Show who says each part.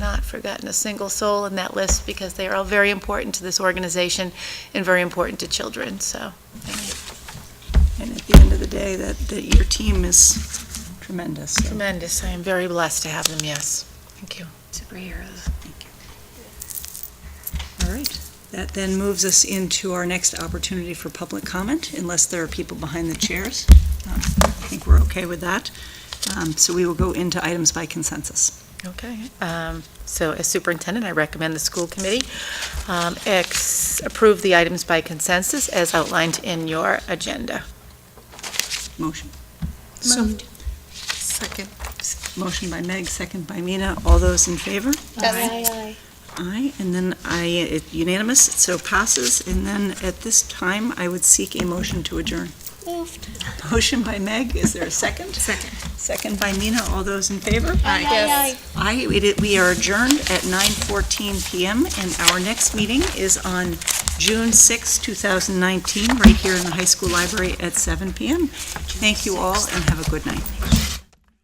Speaker 1: forgotten a single soul in that list because they are all very important to this organization and very important to children, so.
Speaker 2: And at the end of the day, that, that your team is tremendous. so
Speaker 1: Tremendous. I am very blessed to have them, yes. Thank you.
Speaker 3: Superheroes.
Speaker 2: All right. That then moves us into our next opportunity for public comment, unless there are people behind the chairs. Um, I think we're okay with that. Um, So we will go into items by consensus.
Speaker 1: Okay. um, So as superintendent, I recommend the school committee um, ex- approve the items by consensus as outlined in your agenda.
Speaker 2: Motion.
Speaker 3: So moved. Second.
Speaker 2: Motion by Meg, second by Mina. All those in favor? Aye, and then I, it unanimous, it so passes. And then at this time, I would seek a motion to adjourn.
Speaker 3: Moved.
Speaker 2: Motion by Meg, is there a second?
Speaker 3: Second.
Speaker 2: Second by Mina, all those in favor?
Speaker 3: Aye. Aye.
Speaker 2: Aye, we did- we are adjourned at 9:14 PM, and our next meeting is on June 6, 2019, right here in the high school library at 7 PM. Thank you all, and have a good night.